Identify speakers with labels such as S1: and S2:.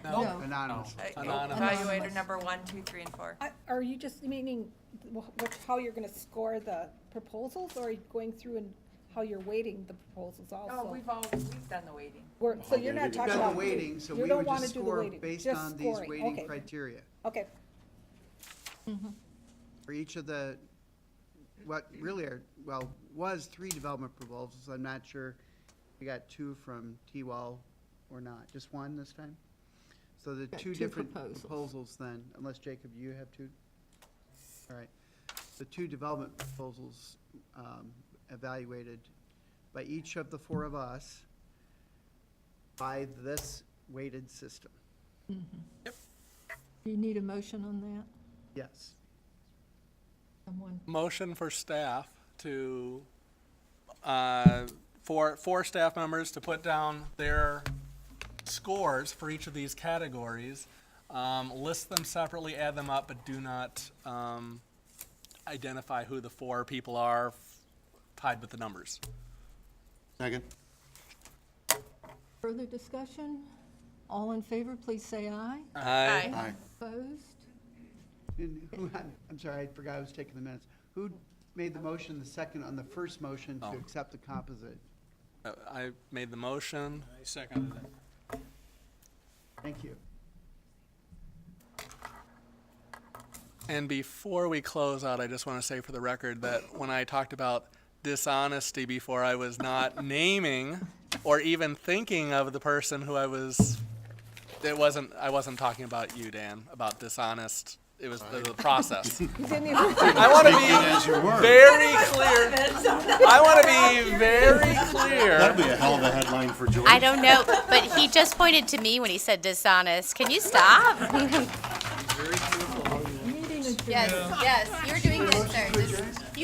S1: Anonymous.
S2: Uh,
S3: Anonymous.
S2: Evaluator number one, two, three, and four.
S4: I- Are you just meaning wh- wh- how you're going to score the proposals, or are you going through and how you're weighting the proposals
S2: Oh,
S4: also?
S2: we've all, we've done the waiting.
S4: We're- So you're not
S1: We've
S4: talking
S1: got
S4: about.
S1: the waiting, so
S4: you
S1: we
S4: don't
S1: would
S4: wanna
S1: just
S4: do the
S1: score
S4: weighting,
S1: based
S4: just
S1: on these
S4: scoring.
S1: weighting
S4: Okay,
S1: criteria
S4: Okay,
S1: for each of the, what really are, well, was three development proposals. I'm not sure we got two from T-Wall or not, just one this time? So the
S5: Got
S1: two
S5: two
S1: different
S5: proposals.
S1: proposals then, unless Jacob, you have two? All right. The two development proposals um, evaluated by each of the four of us by this weighted system.
S5: Mm-hmm. Do you need a motion on that?
S1: Yes.
S5: Someone,
S3: Motion for staff to, uh, for, for staff members to put down their scores for each of these categories, um, list them separately, add them up, but do not, um, identify who the four people are tied with the numbers.
S6: Second.
S5: further discussion? All in favor, please say aye.
S2: Aye.
S6: Aye.
S5: Opposed?
S1: And who- I'm sorry, I forgot I was taking the minutes. Who made the motion, the second on the first motion to accept the composite?
S3: Uh, I made the motion.
S7: Second.
S1: Thank you.
S3: And before we close out, I just want to say for the record that when I talked about dishonesty before, I was not naming or even thinking of the person who I was. It wasn't. I wasn't talking about you, Dan. About dishonest. It was the, the process.
S4: he's in the,
S3: I want to be
S6: As you were.
S3: very clear. I want to be very clear.
S6: That'd be a hell of a headline for George.
S8: I don't know, but he just pointed to me when he said dishonest. Can you stop?
S5: Meeting adjourned.
S8: Yes, yes, you're doing this, sir. Just-